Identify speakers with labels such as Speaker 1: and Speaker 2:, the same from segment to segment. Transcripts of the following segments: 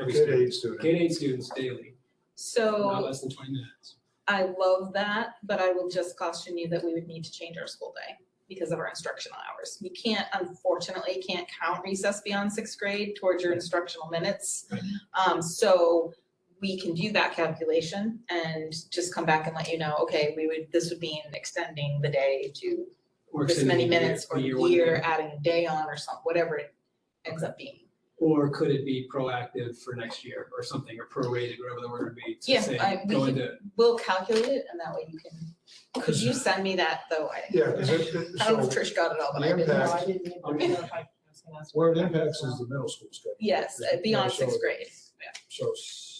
Speaker 1: Every
Speaker 2: Kid
Speaker 1: student,
Speaker 2: aid student.
Speaker 1: K eight students daily, not
Speaker 3: So
Speaker 1: less than twenty minutes.
Speaker 3: I love that, but I will just caution you that we would need to change our school day because of our instructional hours. You can't, unfortunately, can't count recess beyond sixth grade towards your instructional minutes.
Speaker 1: Right.
Speaker 3: Um, so we can do that calculation and just come back and let you know, okay, we would, this would mean extending the day to
Speaker 1: Or
Speaker 3: this
Speaker 1: extending
Speaker 3: many
Speaker 1: the year-
Speaker 3: minutes or
Speaker 1: the
Speaker 3: year,
Speaker 1: one
Speaker 3: adding a day on or some, whatever it ends up being.
Speaker 1: Or could it be proactive for next year or something, or prorated, whatever the word would be,
Speaker 3: Yeah,
Speaker 1: to say,
Speaker 3: I- we
Speaker 1: go
Speaker 3: can-
Speaker 1: into.
Speaker 3: We'll calculate it and that way you can, could you send me that though? I
Speaker 2: Yeah, 'cause it, it,
Speaker 3: I don't know if
Speaker 2: so
Speaker 3: Trish got it all, but I
Speaker 2: the
Speaker 3: didn't know.
Speaker 2: impact-
Speaker 3: I didn't.
Speaker 1: I'm-
Speaker 2: where it impacts is the middle school schedule.
Speaker 3: Yes, uh, beyond sixth grade.
Speaker 2: So, s-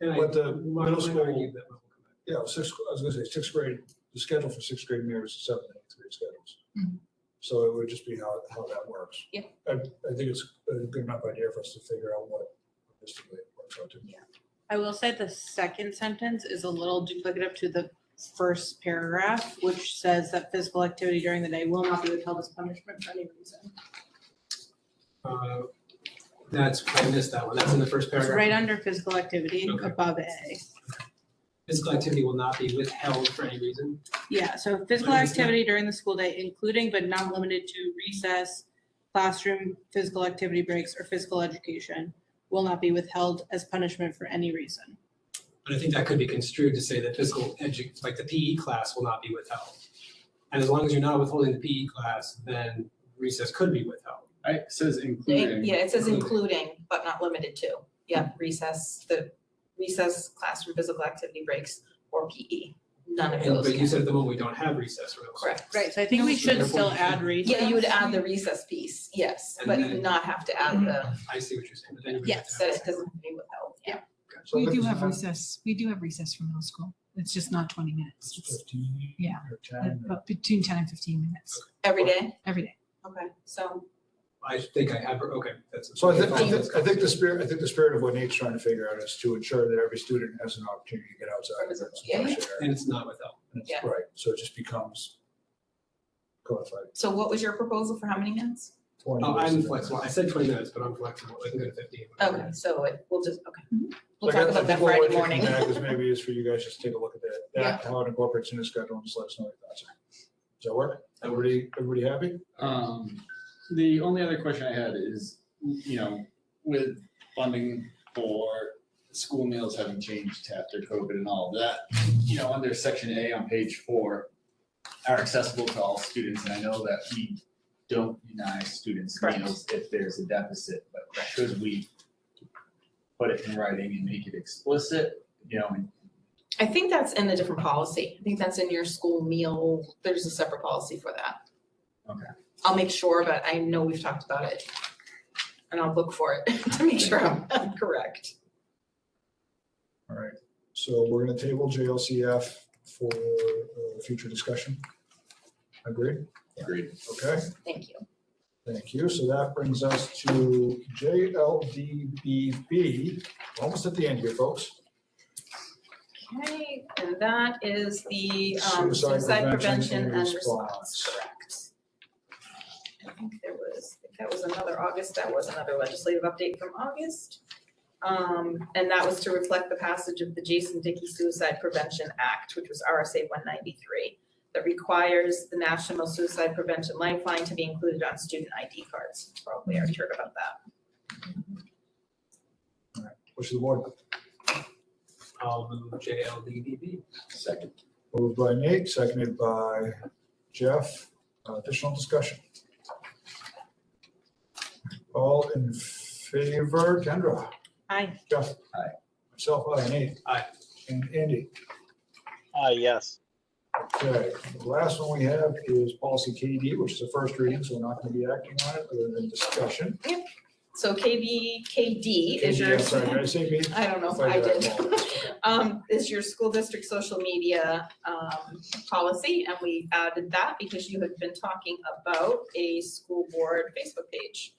Speaker 1: And I
Speaker 2: But the
Speaker 1: might-
Speaker 2: middle
Speaker 1: might
Speaker 2: school-
Speaker 1: argue that we'll come back.
Speaker 2: yeah, sixth, I was gonna say, sixth grade, the schedule for sixth grade mirrors the seventh and eighth grade schedules.
Speaker 4: Mm-hmm.
Speaker 3: Mhm.
Speaker 2: So it would just be how, how that works.
Speaker 3: Yeah.
Speaker 2: I, I think it's a good enough idea for us to figure out what, realistically it works out to.
Speaker 5: I will say the second sentence is a little duplicative to the first paragraph, which says that physical activity during the day will not be withheld as punishment for any reason.
Speaker 1: Uh, That's, I missed that one. That's in the first
Speaker 5: It's
Speaker 1: paragraph.
Speaker 5: right under physical activity and
Speaker 1: Okay.
Speaker 5: above A.
Speaker 1: Physical activity will not be withheld for any reason.
Speaker 5: Yeah, so physical
Speaker 1: Wait, is that-
Speaker 5: activity during the school day, including but not limited to recess, classroom, physical activity breaks, or physical education, will not be withheld as punishment for any reason.
Speaker 1: But I think that could be construed to say that physical edu, like the PE class will not be withheld. And as long as you're not withholding the PE class, then recess could be withheld.
Speaker 6: I, it says
Speaker 3: It-
Speaker 6: including,
Speaker 3: Yeah, it says
Speaker 1: Including.
Speaker 3: including, but not limited to. Yeah, recess, the recess, classroom, physical activity breaks, or PE. None of
Speaker 1: And-
Speaker 3: those
Speaker 1: But you
Speaker 3: count.
Speaker 1: said at the moment, we don't have recess rules.
Speaker 3: Correct.
Speaker 5: Right, so I think we should still add recess.
Speaker 3: Yeah, you would add the recess piece, yes,
Speaker 1: And
Speaker 3: but you
Speaker 1: then- Mm-hmm.
Speaker 3: would not have to add the,
Speaker 1: I see what you're saying, but then you would have
Speaker 5: Yes,
Speaker 1: to
Speaker 3: that
Speaker 1: have
Speaker 3: it doesn't be withheld, yeah.
Speaker 2: So I
Speaker 4: We
Speaker 2: think
Speaker 4: do
Speaker 2: it's
Speaker 4: have
Speaker 2: about
Speaker 4: recess, we do have recess for middle school. It's just not twenty minutes. It's
Speaker 2: Fifteen.
Speaker 4: Yeah.
Speaker 2: Or
Speaker 4: uh,
Speaker 2: ten. or-
Speaker 4: but between ten and fifteen minutes
Speaker 3: Every day?
Speaker 4: every day.
Speaker 3: Okay, so,
Speaker 1: I think I have, okay, that's.
Speaker 2: So I think, I think, I think the spirit, I think the spirit of what Nate's trying to figure out is to ensure that every student has an opportunity to get outside and get
Speaker 3: Yeah.
Speaker 2: some fresh air.
Speaker 1: And it's not withheld.
Speaker 2: And it's-
Speaker 3: Yeah.
Speaker 2: Right, so it just becomes codified.
Speaker 3: so what was your proposal for how many minutes?
Speaker 2: 20
Speaker 1: Oh,
Speaker 2: minutes
Speaker 1: I'm
Speaker 2: is enough.
Speaker 1: flexible. I said twenty minutes, but I'm flexible. I can go to fifteen. whatever.
Speaker 3: Okay, so it, we'll just, okay. We'll
Speaker 2: Like, I-
Speaker 3: talk
Speaker 2: I
Speaker 3: about that
Speaker 2: think what we're
Speaker 3: Friday
Speaker 2: thinking
Speaker 3: morning.
Speaker 2: back is Maybe is for you guys just to take a look at that, that, how it incorporates in the schedule and just let us know your thoughts. Does that work?
Speaker 1: That works.
Speaker 2: Everybody, everybody happy?
Speaker 6: um, the only other question I had is, you know, with funding for school meals having changed after COVID and all that, you know, under section A on page four are accessible to all students, and I know that we don't deny students
Speaker 3: Correct.
Speaker 6: meals if there's a deficit, but should we put it in writing and make it explicit, you know, and
Speaker 3: I think that's in a different policy. I think that's in your school meal. There's a separate policy for that.
Speaker 6: Okay.
Speaker 3: I'll make sure, but I know we've talked about it. And I'll look for it to make sure I'm correct.
Speaker 2: All right, so we're gonna table JLCF for, uh, future discussion. Agreed?
Speaker 6: Agreed.
Speaker 2: Okay.
Speaker 3: Thank you.
Speaker 2: Thank you. So that brings us to JLDBB. Almost at the end here, folks.
Speaker 3: Okay, and that is the um,
Speaker 2: Suicide
Speaker 3: suicide
Speaker 2: prevention
Speaker 3: prevention
Speaker 2: and
Speaker 3: and
Speaker 2: response.
Speaker 3: response, correct. I think there was, I think that was another August, that was another legislative update from August. Um, and that was to reflect the passage of the Jason Dickey Suicide Prevention Act, which was RSA one ninety-three, that requires the National Suicide Prevention Lifeline to be included on student ID cards. Probably already heard about that.
Speaker 2: Wish the board.
Speaker 1: I'll move JLDDB.
Speaker 6: second.
Speaker 2: Moved by Nate, seconded by Jeff. Uh, Additional discussion. All in favor, Kendra?
Speaker 5: Aye.
Speaker 2: Jeff?
Speaker 6: Aye.
Speaker 2: Myself, aye, Nate?
Speaker 1: Aye.
Speaker 2: And Andy?
Speaker 7: Uh, yes.
Speaker 2: Okay, the last one we have is policy KD, which is the first reading, so we're not going to be acting on it other than discussion.
Speaker 3: So KB, KD
Speaker 2: KD,
Speaker 3: is your.
Speaker 2: I'm sorry, did I say B?
Speaker 3: I don't know if
Speaker 2: If I
Speaker 3: I
Speaker 2: did, I
Speaker 3: did. Um, is your school district social media, um, policy, and we added that because you had been talking about a school board Facebook page.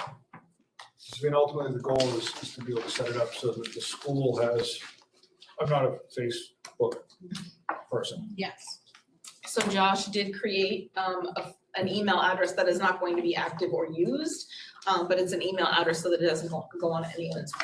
Speaker 2: I mean, ultimately, the goal is, is to be able to set it up so that the school has, I'm not a Facebook person.
Speaker 5: Yes.
Speaker 3: So Josh did create, um, a, an email address that is not going to be active or used, um, but it's an email address so that it doesn't go go on anyone's